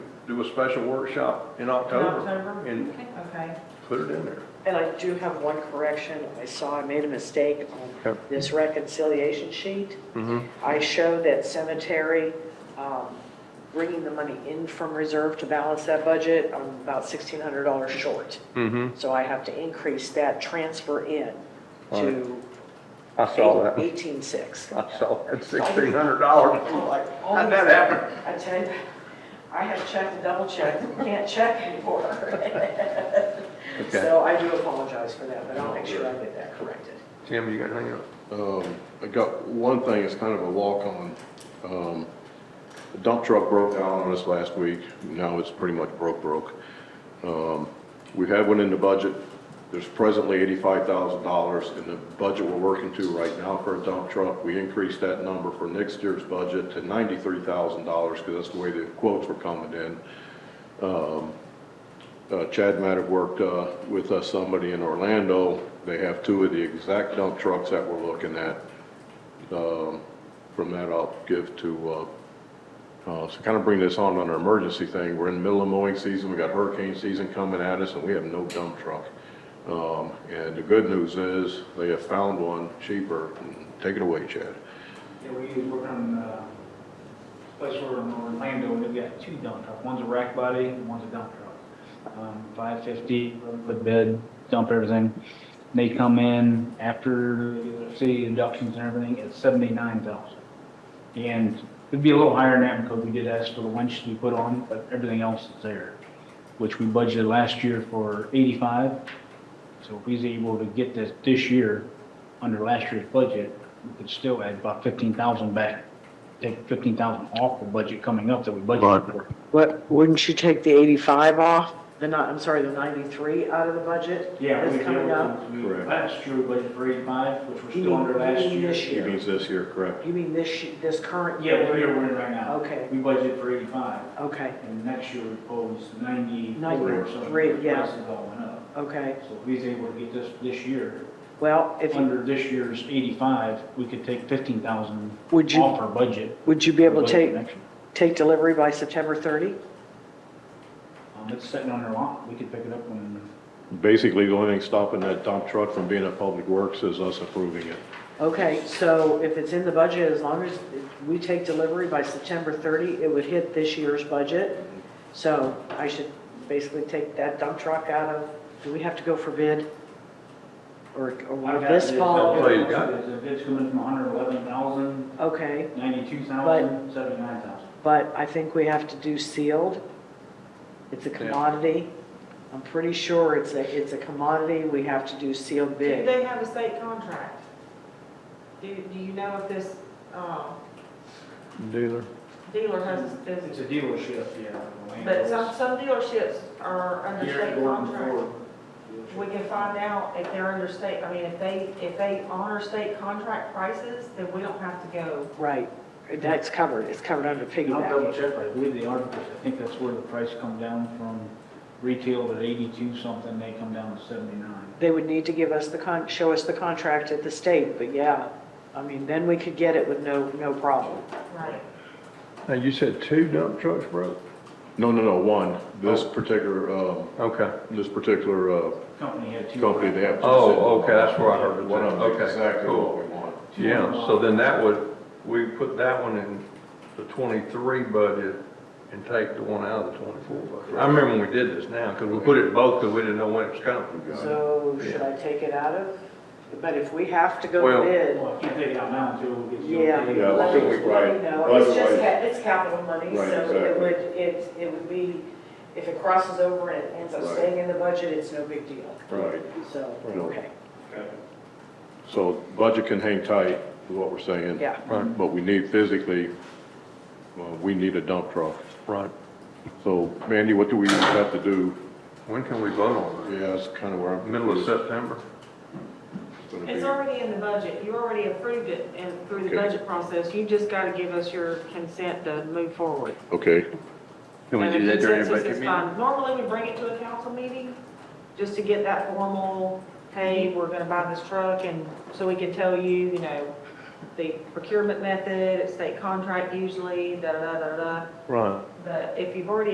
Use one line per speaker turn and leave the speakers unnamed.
do a special workshop in October
October?
and
Okay.
put it in there.
And I do have one correction. I saw I made a mistake on
Okay.
this reconciliation sheet.
Mhm.
I show that cemetery, um, bringing the money in from reserve to balance that budget, I'm about $1,600 short.
Mm-hmm.
So I have to increase that transfer in to
I saw that.
18,600.
I saw that sixteen hundred dollars. I'm like,
Oh,
how'd that happen?
I tell you, I have checked and double checked, can't check anymore. So I do apologize for that, but I'll make sure I get that corrected.
Jim, you got anything else?
Um, I got, one thing It's kind of a walk-on. Um, The dump truck broke down on us last week. Now it's pretty much broke, broke. Um, We have one in the budget. There's presently $85,000 in the budget we're working to right now for a dump truck. We increased that number for next year's budget to $93,000 because that's the way the quotes were coming in. Um, Uh, Chad might have worked uh, with uh, somebody in Orlando. They have two of the exact dump trucks that we're looking at. Um, From that, I'll give to, uh, uh, so kind of bring this on on an emergency thing. We're in the middle of mowing season, we got hurricane season coming at us, and we have no dump truck. Um, And the good news is, they have found one cheaper. Take it away, Chad.
Yeah, we work on, uh, place where in Orlando, we've got two dump trucks. One's a rack body and one's a dump truck. Um, five fifty, put bed, dump everything. They come in after the city deductions and everything, it's seventy-nine thousand. And it'd be a little higher than that because we did ask for the winch to be put on, but everything else is there, which we budgeted last year for eighty-five. So if he's able to get this, this year, under last year's budget, we could still add about fifteen thousand back. Take fifteen thousand off the budget coming up that we budgeted for.
What, wouldn't you take the 85 off, the, ni- I'm sorry, the 93 out of the budget? That's coming up?
Correct.
Last year, we budgeted for eighty-five, which
You
we're still
mean-
under
you
last
mean
year.
this
He
year?
means this year, correct?
You mean this, sh- this current?
Yeah, we're here, we're in right now.
Okay.
We budgeted for eighty-five,
Okay,
and next year we proposed ninety-four or something.
93, yeah.
Prices all went up.
okay.
So if he's able to get this, this year,
Well, if, you-
under this year's eighty-five, we could take fifteen thousand
Would you-
off our budget.
would you be able to
budget
take,
next year.
take delivery by September 30?
Um, It's sitting on their lot, we could pick it up when,
Basically, the only thing stopping that dump truck from being at Public Works is us approving it.
Okay, so if it's in the budget, as long as we take delivery by September 30, it would hit this year's budget. So I should basically take that dump truck out of, do we have to go for bid? Or, or will this fall?
Well, you got
The bid's coming from hundred eleven thousand,
Okay,
ninety-two thousand, seventy-nine thousand.
but I think we have to do sealed. It's a commodity. I'm pretty sure it's a, it's a commodity. We have to do sealed
Do
bid.
they have a state contract? Do, do you know if this, um,
Dealer.
dealer has, is,
It's a dealership, yeah. Land
but
goes-
some, some dealerships are under
Here,
state
Gordon
contract.
Ford dealership.
We can find out if they're under state, I mean, if they, if they honor state contract prices, then we don't have to go.
Right. That's covered. It's covered under
I'll double
piggyback.
check, but I believe the articles, I think that's where the price come down from retail at eighty-two something, they come down to seventy-nine.
They would need to give us the con, show us the contract at the state, but yeah. I mean, then we could get it with no, no problem.
Right.
Now, you said two dump trucks broke?
No, no, no, one.
Oh.
This particular, um,
Okay.
this particular uh,
Company had two.
company, they have. two
Oh,
sitting
okay, that's where I
on.
heard it.
One of them
Okay,
is exactly
cool.
what we want.
Yeah, so then that would, we put that one in the twenty-three budget and take the one out of the twenty-four budget. I remember when we did this now, because we put it both, because we didn't know when it was coming.
So should I take it out of? But if we have to go
Well-
bid,
Well, if you Oh, take it out now until we get. the
Yeah.
okay.
Yeah, I think we-
Let me know. It's just,
Otherwise-
ca- it's capital money,
Right,
so it
exactly.
would, it, it would be, if it crosses over and it ends up
Right.
staying in the budget, it's no big deal.
Right.
So,
Right.
okay,
So budget can hang tight, is what we're saying.
yeah.
Right,
But we need physically, well, we need a dump truck.
right.
So Mandy, what do we have to do?
When can we vote on
Yeah, that's kind of where
that?
I'm.
Middle of September?
It's gonna be-
It's already in the budget, you already approved it and through the
Okay.
budget process, you just gotta give us your consent to move forward.
Okay,
Can we
And
do
the
that during a
consensus
budget
is
meeting?
fine. Normally, we bring it to a council meeting, just to get that formal, hey, we're gonna buy this truck, and so we can tell you, you know, the procurement method, it's state contract usually, da-da-da-da-da.
Right.
But if you've already